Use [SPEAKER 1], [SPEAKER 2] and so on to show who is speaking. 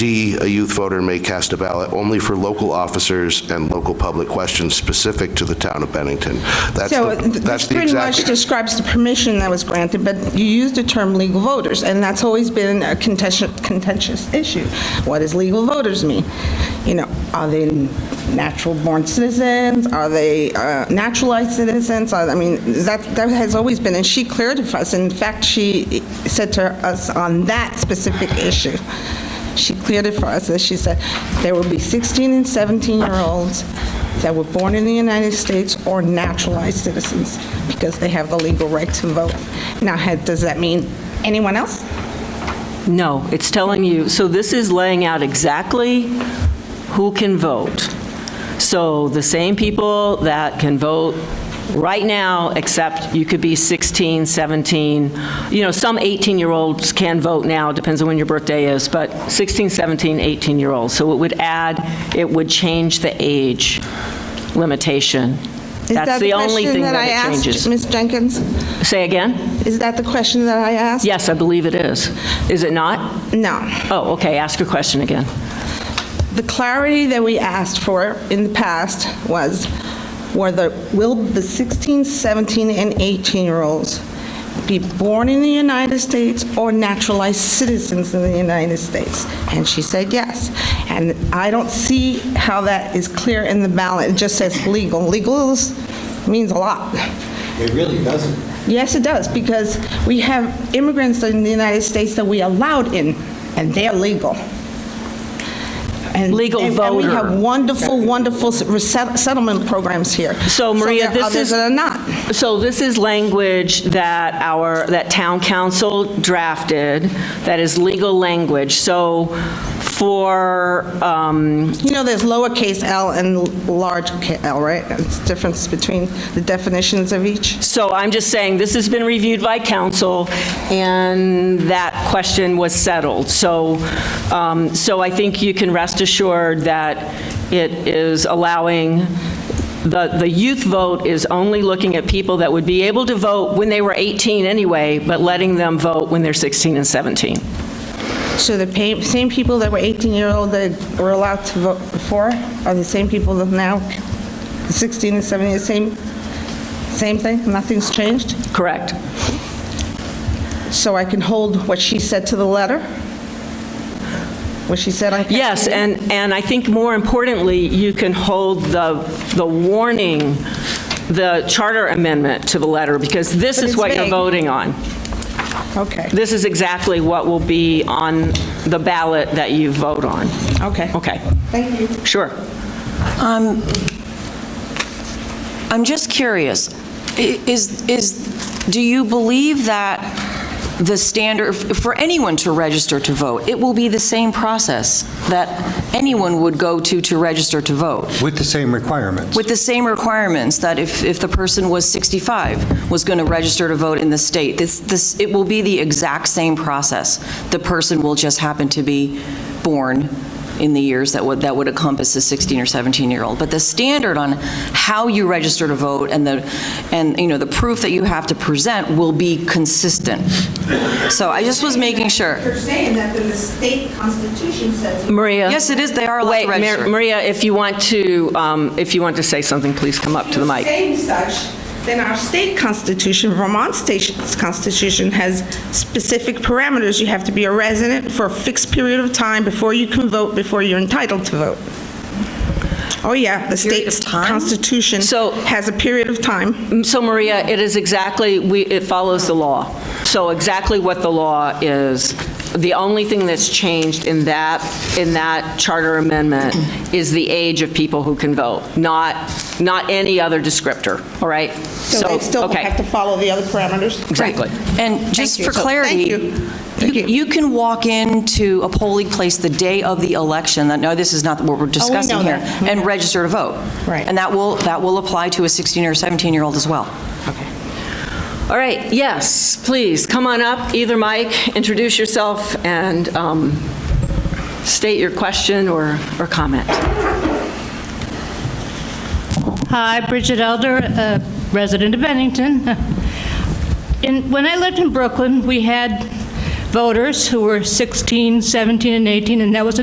[SPEAKER 1] D, a youth voter may cast a ballot only for local officers and local public questions specific to the town of Bennington. That's
[SPEAKER 2] So
[SPEAKER 1] the,
[SPEAKER 2] th-
[SPEAKER 1] that's
[SPEAKER 2] this
[SPEAKER 1] the
[SPEAKER 2] pretty much
[SPEAKER 1] exact.
[SPEAKER 2] describes the permission that was granted, but you used the term legal voters, and that's always been a contentious, contentious issue. What does legal voters mean? You know, are they natural-born citizens? Are they uh, naturalized citizens? Are- I mean, that, that has always been, and she cleared it for us. In fact, she said to us on that specific issue, she cleared it for us, and she said, there will be 16 and 17-year-olds that were born in the United States or naturalized citizens because they have the legal right to vote. Now, had- does that mean anyone else?
[SPEAKER 3] No, it's telling you, so this is laying out exactly who can vote. So the same people that can vote right now, except you could be 16, 17, you know, some 18-year-olds can vote now, depends on when your birthday is, but 16, 17, 18-year-olds. So it would add, it would change the age limitation.
[SPEAKER 2] Is that
[SPEAKER 3] That's the only
[SPEAKER 2] question
[SPEAKER 3] thing
[SPEAKER 2] I
[SPEAKER 3] that it
[SPEAKER 2] asked,
[SPEAKER 3] changes.
[SPEAKER 2] Ms. Jenkins?
[SPEAKER 3] Say again?
[SPEAKER 2] Is that the question that I asked?
[SPEAKER 3] Yes, I believe it is. Is it not?
[SPEAKER 2] No.
[SPEAKER 3] Oh, okay, ask your question again.
[SPEAKER 2] The clarity that we asked for in the past was, were the, will the 16, 17, and 18-year-olds be born in the United States or naturalized citizens in the United States? And she said yes. And I don't see how that is clear in the ballot. It just says legal. Legal is- means a lot.
[SPEAKER 4] It really doesn't.
[SPEAKER 2] Yes, it does, because we have immigrants in the United States that we allowed in, and they're legal. And-
[SPEAKER 3] Legal
[SPEAKER 2] and- And we
[SPEAKER 3] voter.
[SPEAKER 2] have wonderful, wonderful reset- settlement programs here.
[SPEAKER 3] So Maria, this is...
[SPEAKER 2] So there are others that are not.
[SPEAKER 3] So this is language that our, that town council drafted, that is legal language. So for, um,
[SPEAKER 2] You know, there's lowercase l and large ca- l, right? It's difference between the definitions of each.
[SPEAKER 3] so I'm just saying, this has been reviewed by council, and that question was settled. So, um, so I think you can rest assured that it is allowing, the, the youth vote is only looking at people that would be able to vote when they were 18 anyway, but letting them vote when they're 16 and 17.
[SPEAKER 2] So the pa- same people that were 18-year-old that were allowed to vote before are the same people that now, 16 and 17, the same, same thing? Nothing's changed?
[SPEAKER 3] Correct.
[SPEAKER 2] So I can hold what she said to the letter? What she said on...
[SPEAKER 3] Yes, and, and I think more importantly, you can hold the, the warning, the charter amendment to the letter, because this
[SPEAKER 2] But
[SPEAKER 3] is
[SPEAKER 2] it's
[SPEAKER 3] what you're
[SPEAKER 2] vague.
[SPEAKER 3] voting on.
[SPEAKER 2] Okay,
[SPEAKER 3] This is exactly what will be on the ballot that you vote on.
[SPEAKER 2] okay.
[SPEAKER 3] Okay,
[SPEAKER 2] Thank you.
[SPEAKER 3] sure.
[SPEAKER 5] I'm just curious, I- is, is, do you believe that the standard, for anyone to register to vote, it will be the same process that anyone would go to to register to vote?
[SPEAKER 6] With the same requirements.
[SPEAKER 5] With the same requirements that if, if the person was 65, was going to register to vote in the state, this, this, it will be the exact same process. The person will just happen to be born in the years that would, that would encompass a 16 or 17-year-old. But the standard on how you register to vote and the, and, you know, the proof that you have to present will be consistent. So I just was making sure.
[SPEAKER 2] saying that the state constitution says...
[SPEAKER 3] Maria?
[SPEAKER 5] Yes, it is, they are allowed to
[SPEAKER 3] Wait, Mar-
[SPEAKER 5] register.
[SPEAKER 3] Maria, if you want to, um, if you want to say something, please come up to the mic.
[SPEAKER 2] Saying such, then our state constitution, Vermont state's constitution, has specific parameters. You have to be a resident for a fixed period of time before you can vote, before you're entitled to vote. Oh, yeah, the
[SPEAKER 5] of
[SPEAKER 2] state's
[SPEAKER 5] time?
[SPEAKER 2] constitution
[SPEAKER 3] So-
[SPEAKER 2] has a period of time.
[SPEAKER 3] So Maria, it is exactly, we, it follows the law. So exactly what the law is, the only thing that's changed in that, in that charter amendment is the age of people who can vote, not, not any other descriptor, all right?
[SPEAKER 2] So they still
[SPEAKER 3] okay,
[SPEAKER 2] have to follow the other parameters?
[SPEAKER 3] Exactly.
[SPEAKER 5] And just
[SPEAKER 2] you.
[SPEAKER 5] for
[SPEAKER 2] So,
[SPEAKER 5] clarity,
[SPEAKER 2] thank you. Thank
[SPEAKER 5] you-
[SPEAKER 2] you.
[SPEAKER 5] you can walk into a polling place the day of the election, that, no, this is not what we're discussing
[SPEAKER 2] Oh, know
[SPEAKER 5] here,
[SPEAKER 2] that. We
[SPEAKER 5] and register to vote.
[SPEAKER 2] Right.
[SPEAKER 5] And that will, that will apply to a 16 or 17-year-old as well.
[SPEAKER 3] All right, yes, please, come on up, either Mike, introduce yourself and um, state your question or, or comment.
[SPEAKER 7] Hi, Bridget Elder, a resident of Bennington. In- When I lived in Brooklyn, we had voters who were 16, 17, and 18, and that was